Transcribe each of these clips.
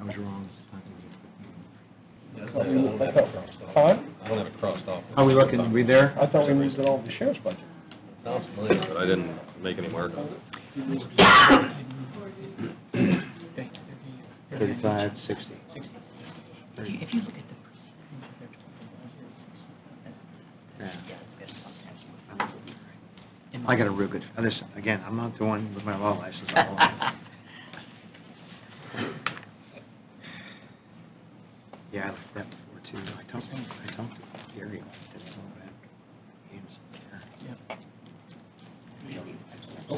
I was wrong. That's thought we moved- I not- thought- Huh? I don't have it crossed off. Are we looking, we there? I thought we moved it all to the sheriff's budget. Sounds familiar, but I didn't make any mark on it. Thirty-five, sixty. If you look at the percentage, Yeah. they're talking I got a real good, listen, again, I'm not the one with my law license. I'm the one. Yeah, I looked at that before too. I talked, I talked to Gary about this a little bit. He was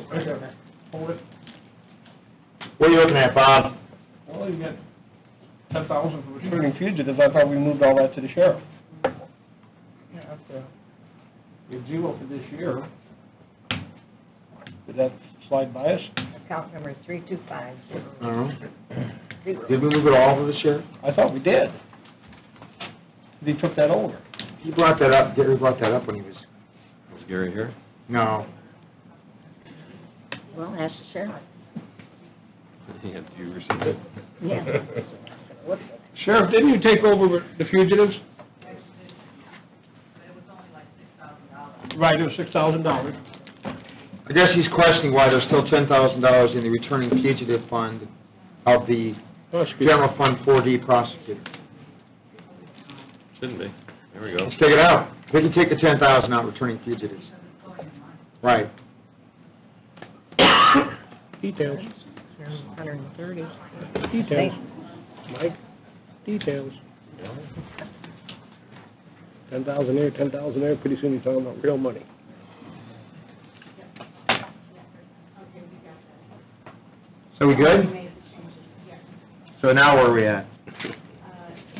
there. Hold it. What are you looking at, Bob? Well, you got ten thousand for returning fugitives, I thought we moved all that to the sheriff. Yeah, that's, uh, you're zero for this year. Did that slide by us? Account number three two five I don't know. zero. Did we move it all to the sheriff? I thought we did. They took that over. He brought that up, Gary brought that up when he was, Was Gary here? no. Well, ask the sheriff. He had, you received it? Yeah. What's it? Sheriff, didn't you take over the fugitives? Right, it was six thousand dollars. I guess he's questioning why there's still ten thousand dollars in the returning fugitive fund of the general fund four D prosecutor. Shouldn't be. There we go. Let's take it out. We can take the ten thousand out returning fugitives. Right. Details, Hundred and thirty. details, Mike, details. Ten thousand there, ten thousand there, pretty soon you're talking about real money. So we good? So now where are we at? Uh,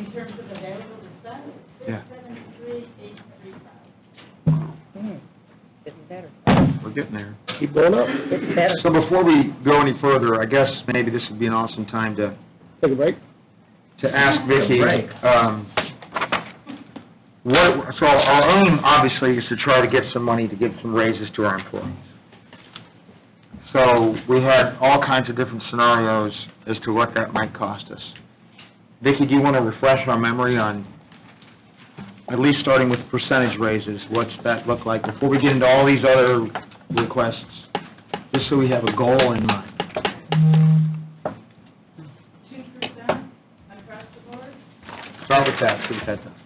In terms of available to spend, Yeah. Getting better. We're getting there. Keep going up, Getting better. So before we go any further, I guess Maybe this would be an awesome time to, take a break. to ask Vicki, Right. um, what, so our aim, obviously, is to try to get some money to give some raises to our employees. So we had all kinds of different scenarios as to what that might cost us. Vicki, do you want to refresh our memory on, at least starting with percentage raises, what's that look like before we get into all these other requests, just so we have a goal in mind? two percent across the board, Start with that, see what that does.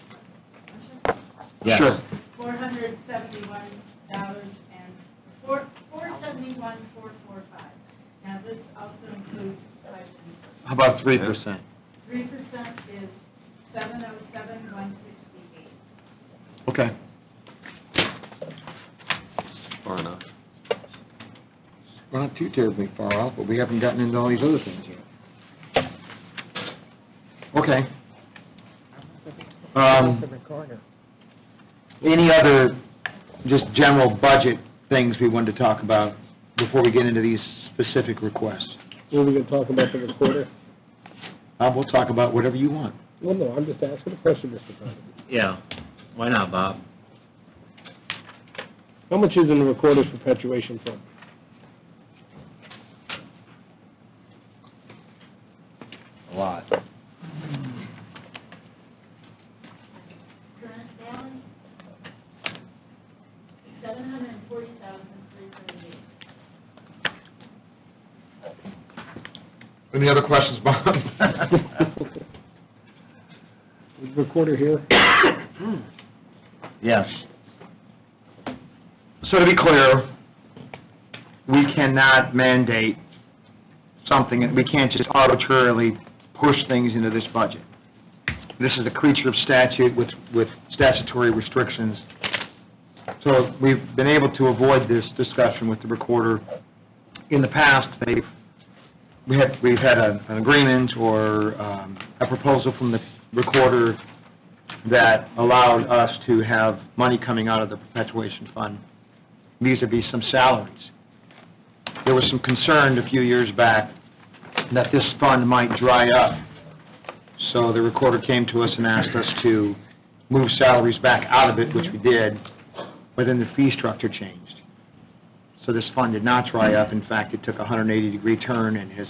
Yes. Sure. four hundred seventy-one dollars and four, four seventy-one, four four five. Now, this also includes questions. How about three percent? Three percent is seven oh seven, one sixty-eight. Okay. Far enough. We're not too terribly far off, but we haven't gotten into all these other things yet. Okay. Um, The recorder. Any other just general budget things we wanted to talk about before we get into these specific requests? What are we gonna talk about the recorder? Uh, We'll talk about whatever you want. Well, no, I'm just asking a question, Mr. Conlon. Yeah, why not, Bob? How much is in the recorder's perpetuation fund? A lot. Current balance, seven hundred and forty thousand, three thirty-eight. Any other questions, Bob? Is the recorder here? Yes. So to be clear, we cannot mandate something, we can't just arbitrarily push things into this budget. This is a creature of statute with, with statutory restrictions. So we've been able to avoid this discussion with the recorder. In the past, they've, we had, we've had a- an agreement or um, a proposal from the recorder that allowed us to have money coming out of the perpetuation fund vis-à-vis some salaries. There was some concern a few years back that this fund might dry up, so the recorder came to us and asked us to move salaries back out of it, which we did, but then the fee structure changed. So this fund did not dry up, in fact, it took a 180-degree turn and has